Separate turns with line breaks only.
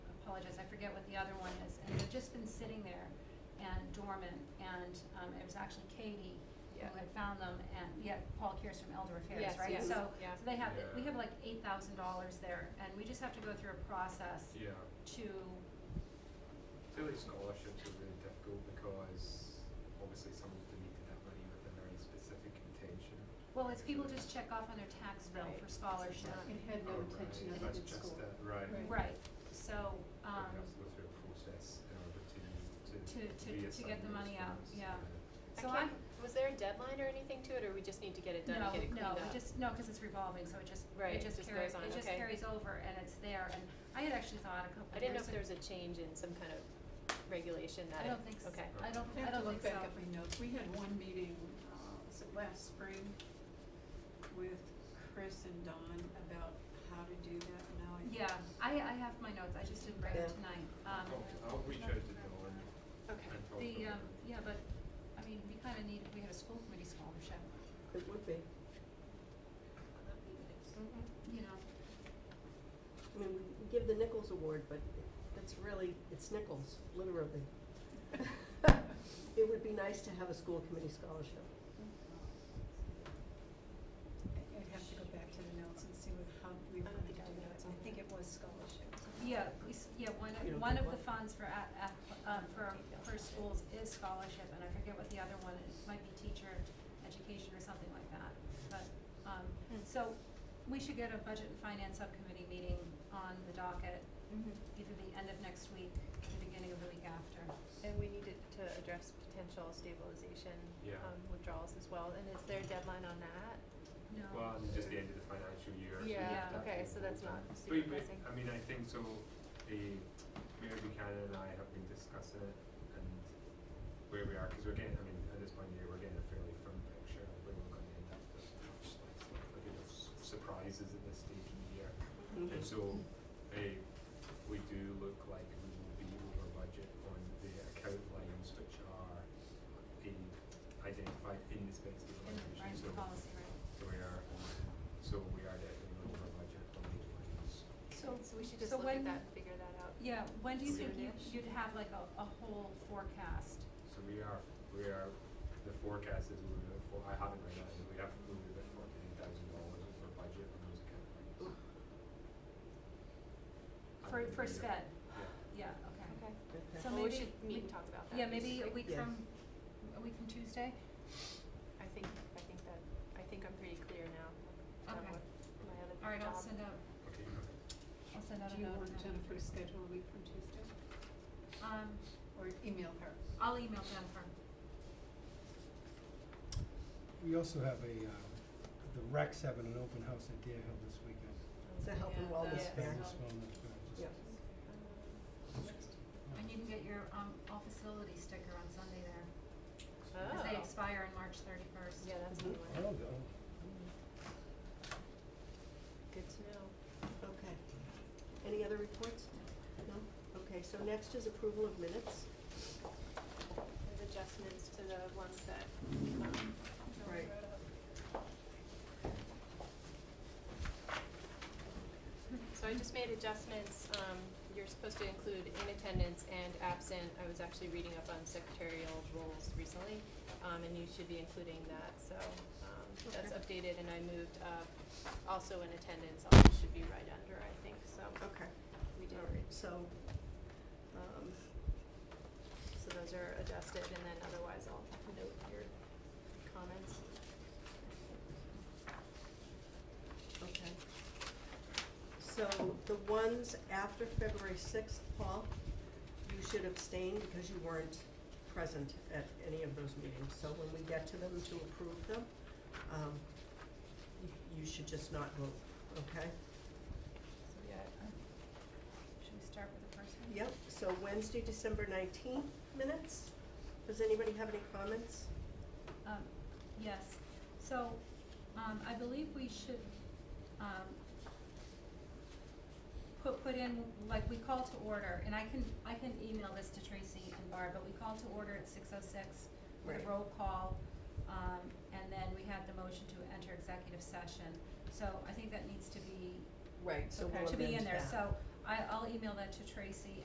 forget what the other one is, and they've just been sitting there and dormant, and, um, it was actually Katie
Yeah.
who had found them, and, yeah, Paul Kears from Elder Affairs,
Yes,
right?
yes,
So,
yeah.
so they have, the- we
Yeah.
have like eight thousand dollars there, and we just have to go through a process
Yeah,
to,
clearly scholarships are really difficult because obviously someone's donated that money with a very specific intention.
well, it's people just check off on their tax bill
Right.
for scholarship.
not-
It had no intention of it in school.
Oh, right, that's just that, right.
Right.
Right, so,
We
um,
have to go through a process in order to, to
To- to- to
reassign
get the
those
money out,
funds,
yeah.
I
so
can't-
I'm,
was there a deadline or anything to it, or we just need to get it done
no,
and get it cleaned
no,
up?
we just, no, cause it's revolving, so it just,
Right,
it
it
just
just
carries,
goes on,
it just
okay.
carries over and it's there, and I had actually thought a couple
I
of years ago.
didn't know if there was a change in some kind of regulation that.
I
it-
don't think so,
Okay.
I don't, I
I have to
don't think
look
so.
back at my notes. We had one meeting, uh, was it last spring, with Chris and Don about how to do that now. I-
Yeah, I, I have my notes, I just didn't bring them tonight,
uh,
um.
I'll, I'll reach out oh, to Dawn
Okay.
and talk to
The,
her.
um, yeah, but, I mean, we kinda need, we had a school committee scholarship,
It would be.
Mhm.
you know,
I mean, we we give the Nichols Award, but that's really, it's Nichols, literally. It would be nice to have a school committee scholarship.
I- I'd have to go back to the notes and see what, how we
I don't
wanted to
think I
do
have
that.
notes on
I think it was scholarships.
yeah, we, s- yeah, one
You
of,
don't
one
think
of the
what?
funds for at, at, um, for, for schools is scholarship, and I forget what the other one is, might be teacher education or something like that, but, um,
Hmm.
so, we should get a budget and finance subcommittee meeting on the docket, either the end of next week, or the beginning of the week after.
And we needed to address potential stabilization
Yeah.
um, withdrawals as well, and is there a deadline on that?
No.
Well, it's just the end of the financial year. so we
Yeah,
have that
okay,
thing
so that's
open.
not
But-
super
but,
pressing.
I mean, I think so, the, Mayor Buchanan and I have been discussing it and where we are, cause we're getting, I mean, at this point in the year, we're getting a fairly firm picture of where we're gonna end up with much like, like, you know, s- surprises at this stage in the year. And so, eh, we do look like we will be over budget on the account lines which are in, identified in this best
In the
evaluation,
Ryan's
so
policy, right?
so we are, so we are definitely over budget on these lines.
So,
So we should just
so
look at
when-
that and figure that out.
Yeah, when do you think you,
Soon-ish.
you'd have like a, a whole forecast?
So we are, we are, the forecast is we were, for- I haven't read that, we have, we were at fourteen thousand dollars for budget on those account lines. And
For,
we
for
are-
SPED,
Yeah,
yeah, okay.
Okay.
So
Well, we
maybe
should meet
we-
and talk about that.
Yeah, maybe a
basically.
week
Yeah.
from, a week from Tuesday?
I think, I think that, I think I'm pretty clear now on
Okay.
what my other job.
All right, I'll send out,
okay, okay.
I'll send out
Do
a
you
note on
want
that.
Jennifer to schedule a week from Tuesday
Um,
or email her?
I'll email Jennifer.
We also have a, um, the Rex having an open house at Deer Hill this weekend.
It's a health and
Yeah.
wellness
Yeah.
fair.
Wellness, wellness, wellness.
Yeah.
And you can get your, um, all facility sticker on Sunday there,
Um,
cause they
oh.
expire on March thirty-first.
Yeah, that's a new
I
one.
don't know.
Good to know.
Okay. Any other reports? No? Okay, so next is approval of minutes.
There's adjustments to the ones that, um, Joey
Right.
wrote up. So I just made adjustments, um, you're supposed to include in attendance and absent, I was actually reading up on secretarial roles recently, um, and you should be including that, so, um, that's updated, and I moved up, also in attendance, also should be right under, I think, so,
Okay,
we did.
all right, so, um,
So those are adjusted, and then otherwise I'll note your comments.
okay. So the ones after February sixth, Paul, you should abstain because you weren't present at any of those meetings. So when we get to them to approve them, um, you- you should just not vote, okay?
So yeah,
Should we start with the first one?
Yep, so Wednesday, December nineteenth minutes. Does anybody have any comments?
Um, yes, so, um, I believe we should, um, put, put in, like, we call to order, and I can, I can email this to Tracy and Barb, but we call to order at six oh six with a
Right.
roll call, um, and then we had the motion to enter executive session, so I think that needs to be,
Right,
to be in there, so I, I'll email that to Tracy